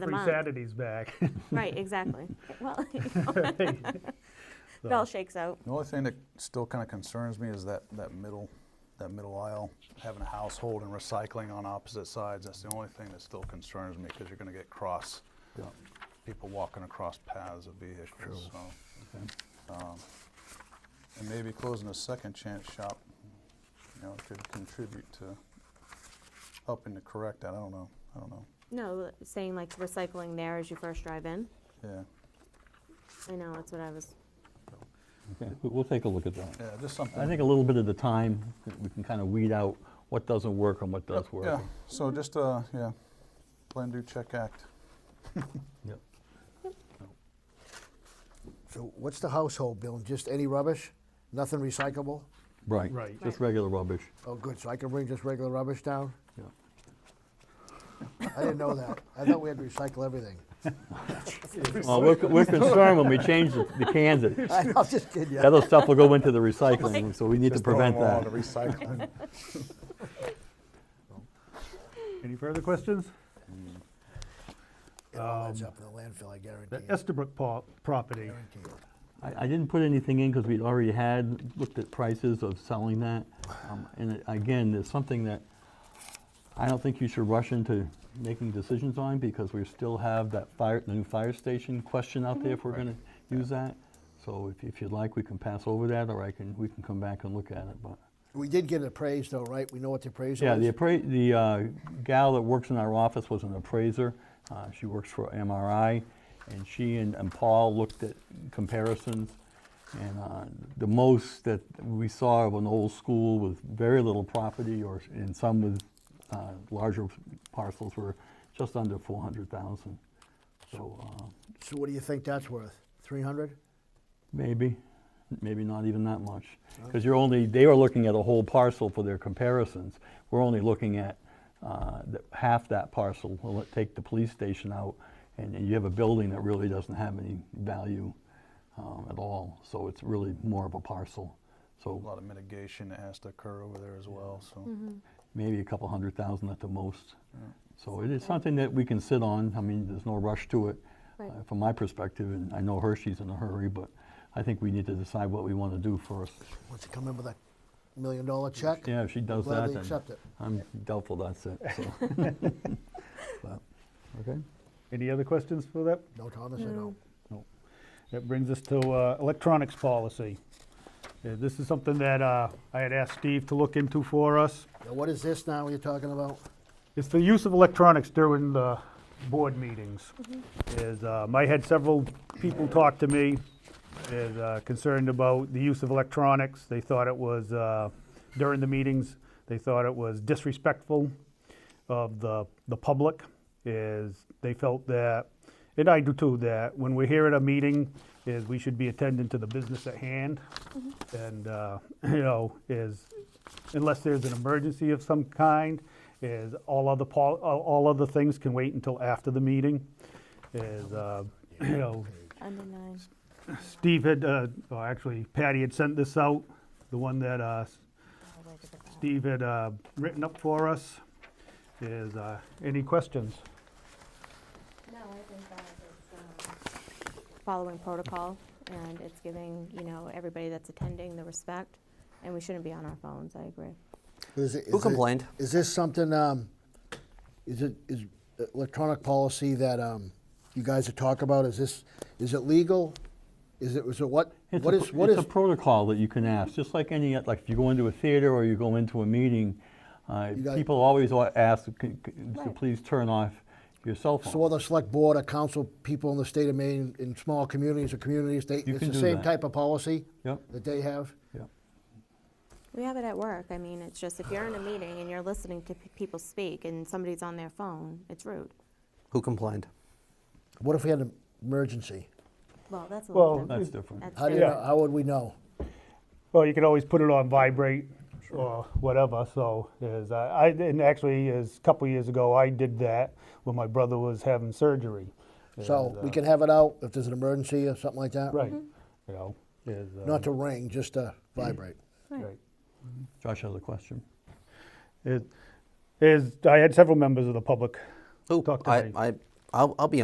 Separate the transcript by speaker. Speaker 1: the
Speaker 2: Free
Speaker 1: month.
Speaker 2: Saturday's back.
Speaker 1: Right, exactly. Well, it all
Speaker 2: So,
Speaker 1: shakes out.
Speaker 3: The only thing that still kind of concerns me is that, that middle, that middle aisle, having a household and recycling on opposite sides. That's the only thing that still concerns me because you're going to get cross, people walking across paths of vehicles, so. um, And maybe closing a second chance shop, you know, could contribute to helping to correct that. I don't know, I don't know,
Speaker 1: No, saying like recycling there as you first drive in.
Speaker 3: yeah.
Speaker 1: I know, that's what I was,
Speaker 4: Okay, we- We'll take a look at that.
Speaker 3: Yeah, just
Speaker 4: I
Speaker 3: something,
Speaker 4: think a little bit at a time, that we can kind of weed out what doesn't work and what does work.
Speaker 3: yeah, so just, uh, yeah, plan, do, check, act.
Speaker 4: Yep.
Speaker 5: So what's the household bill? Just any rubbish? Nothing recyclable?
Speaker 4: Right.
Speaker 2: Right.
Speaker 4: Just
Speaker 1: Right.
Speaker 4: regular rubbish.
Speaker 5: Oh, good, so I can bring just regular rubbish down?
Speaker 4: Yeah.
Speaker 5: I didn't know that. I thought we had to recycle everything.
Speaker 4: Well, Uh, we're, we're concerned when we change the the cans, that
Speaker 5: I was just kidding you.
Speaker 4: other stuff will go into the recycling, so we need to
Speaker 3: Just throwing
Speaker 4: prevent
Speaker 3: them all
Speaker 4: that.
Speaker 3: into Recycling.
Speaker 2: Any further questions?
Speaker 5: It all ends up in the landfill, I guarantee
Speaker 2: The
Speaker 5: it.
Speaker 2: Estabrook po- property,
Speaker 5: Guarantee it.
Speaker 4: I, I didn't put anything in because we'd already had, looked at prices of selling that. Um, And it- again, there's something that I don't think you should rush into making decisions on because we still have that fire, the new fire station question out there if we're gonna use that. So if, if you'd like, we can pass over that or I can, we can come back and look at it, but.
Speaker 5: We did get it appraised though, right? We know what the appraisal
Speaker 4: Yeah,
Speaker 5: is?
Speaker 4: the appra, the uh, gal that works in our office was an appraiser. Uh, She works for MRI, and she and and Paul looked at comparisons. And uh, the most that we saw of an old school with very little property, or, and some with uh, larger parcels were just under 400,000. So uh,
Speaker 5: So what do you think that's worth? Three hundred?
Speaker 4: Maybe, maybe not even that much. Because you're only, they are looking at a whole parcel for their comparisons. We're only looking at uh, th- half that parcel. We'll let- take the police station out, and and you have a building that really doesn't have any value um, at all. So it's really more of a parcel.
Speaker 3: A
Speaker 4: So
Speaker 3: lot of mitigation that has to occur over there as well, so.
Speaker 4: maybe a couple hundred thousand at the most. So it is something that we can sit on. I mean, there's no rush to it
Speaker 1: Right.
Speaker 4: uh, from my perspective, and I know Hershey's in a hurry, but I think we need to decide what we want to do first.
Speaker 5: Wants to come in with a million dollar check?
Speaker 4: Yeah, if she does that,
Speaker 5: Gladly
Speaker 4: then
Speaker 5: accept it.
Speaker 4: I'm doubtful that's it, so. But, Okay,
Speaker 2: any other questions for that?
Speaker 5: No, Thomas, I know.
Speaker 2: That brings us to uh, electronics policy. Uh, This is something that uh, I had asked Steve to look into for us.
Speaker 5: Now, what is this now you're talking about?
Speaker 2: It's the use of electronics during the board meetings. Is, um, I had several people talk to me, is uh, concerned about the use of electronics. They thought it was, uh, during the meetings, they thought it was disrespectful of the, the public, is they felt that, and I do too, that when we're here at a meeting, is we should be attending to the business at hand. And, uh, you know, is, unless there's an emergency of some kind, is all other pol, all- all other things can wait until after the meeting, is, uh, you know,
Speaker 1: under nine.
Speaker 2: Steve had, uh, or actually Patty had sent this out, the one that, uh, Steve had, uh, written up for us, is, uh, any questions?
Speaker 1: No, I think that it's um, following protocol, and it's giving, you know, everybody that's attending the respect, and we shouldn't be on our phones, I agree.
Speaker 5: Is it-
Speaker 6: Who
Speaker 5: is it-
Speaker 6: complained?
Speaker 5: Is this something, um, is it, is electronic policy that, um, you guys are talking about, is this, is it legal? Is it, is it what,
Speaker 4: It's
Speaker 5: what
Speaker 4: a,
Speaker 5: is,
Speaker 4: pr-
Speaker 5: what
Speaker 4: it's
Speaker 5: is,
Speaker 4: a protocol that you can ask, just like any, like if you go into a theater or you go into a meeting, uh,
Speaker 5: You got-
Speaker 4: people always wa- ask, c- c- to
Speaker 1: Right.
Speaker 4: please turn off your cell
Speaker 5: so
Speaker 4: phone.
Speaker 5: other select board or council people in the state of Maine, in small communities or communities, they,
Speaker 4: You
Speaker 5: it's
Speaker 4: can
Speaker 5: the
Speaker 4: do
Speaker 5: same
Speaker 4: that.
Speaker 5: type of policy
Speaker 4: Yep,
Speaker 5: that they have?
Speaker 4: yep.
Speaker 1: We have it at work, I mean, it's just, if you're in a meeting and you're listening to pe- people speak and somebody's on their phone, it's rude.
Speaker 6: Who complained?
Speaker 5: What if we had an emergency?
Speaker 1: Well, that's a
Speaker 2: Well,
Speaker 1: little
Speaker 4: That's
Speaker 1: different.
Speaker 4: different.
Speaker 1: That's
Speaker 5: uh, How do you,
Speaker 1: different.
Speaker 5: know- how would we know?
Speaker 2: Well, you could always put it on vibrate or whatever, so is, uh, I, I- and actually, is, a couple years ago, I did that when my brother was having surgery.
Speaker 5: So
Speaker 2: Is,
Speaker 5: we
Speaker 2: uh,
Speaker 5: can have it out if there's an emergency or something like that?
Speaker 2: Right, you know, is, uh,
Speaker 5: Not to ring, just to vibrate.
Speaker 2: right.
Speaker 4: Josh has a question.
Speaker 2: Is- Is, I had several members of the public
Speaker 6: Who?
Speaker 2: talk to
Speaker 6: I,
Speaker 2: me.
Speaker 6: I I'll, I'll be